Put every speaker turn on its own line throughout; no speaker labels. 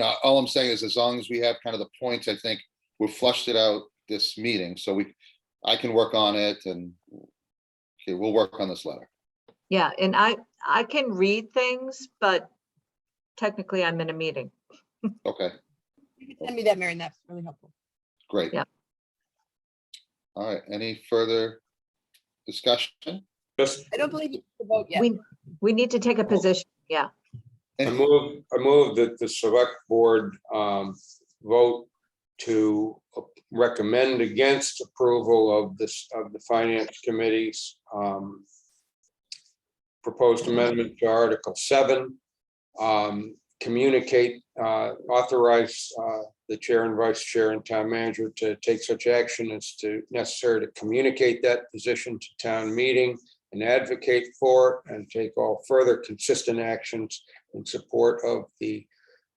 Now, Uh, all I'm saying is as long as we have kind of the points, I think we flushed it out this meeting, so we, I can work on it and okay, we'll work on this letter.
Yeah, and I, I can read things, but technically I'm in a meeting.
Okay,
You can Send me that, Mary, and that's really helpful.
great.
Yeah.
All right, any further discussion?
Just,
I don't believe you took the vote yet.
We, we need to take a position.
I
Any-
move, I move that the select board um, vote to recommend against approval of this, of the finance committee's um, proposed amendment to Article seven. um, Communicate, uh, authorize uh, the chair and vice chair and town manager to take such action as to necessary to communicate that position to town meeting and advocate for it and take all further consistent actions in support of the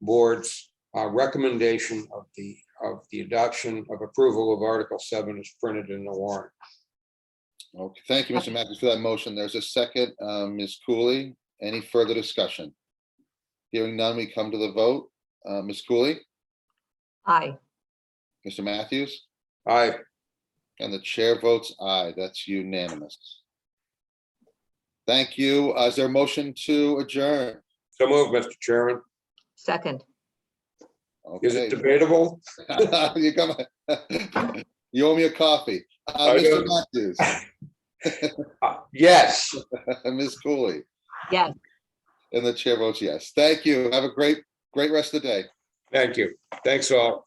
board's uh, recommendation of the, of the adoption of approval of Article 7 is printed in the warrant.
Okay, thank you, Mr. Matthews, for that motion. There's a second, um, Ms. Cooley. Any further discussion? Hearing none, we come to the vote. Uh, Ms. Cooley,
Aye.
Mr. Matthews,
I,
and the chair votes aye. That's unanimous. Thank you. Uh, Is there a motion to adjourn?
so move, Mr. Chairman.
Second.
Is it
Okay.
debatable?
You come, you owe me a coffee. Uh,
I
Mr.
do.
Matthews,
Uh, Yes.
Ms. Cooley,
Yes.
and the chair votes yes. Thank you. Have a great, great rest of the day.
Thank you. Thanks all.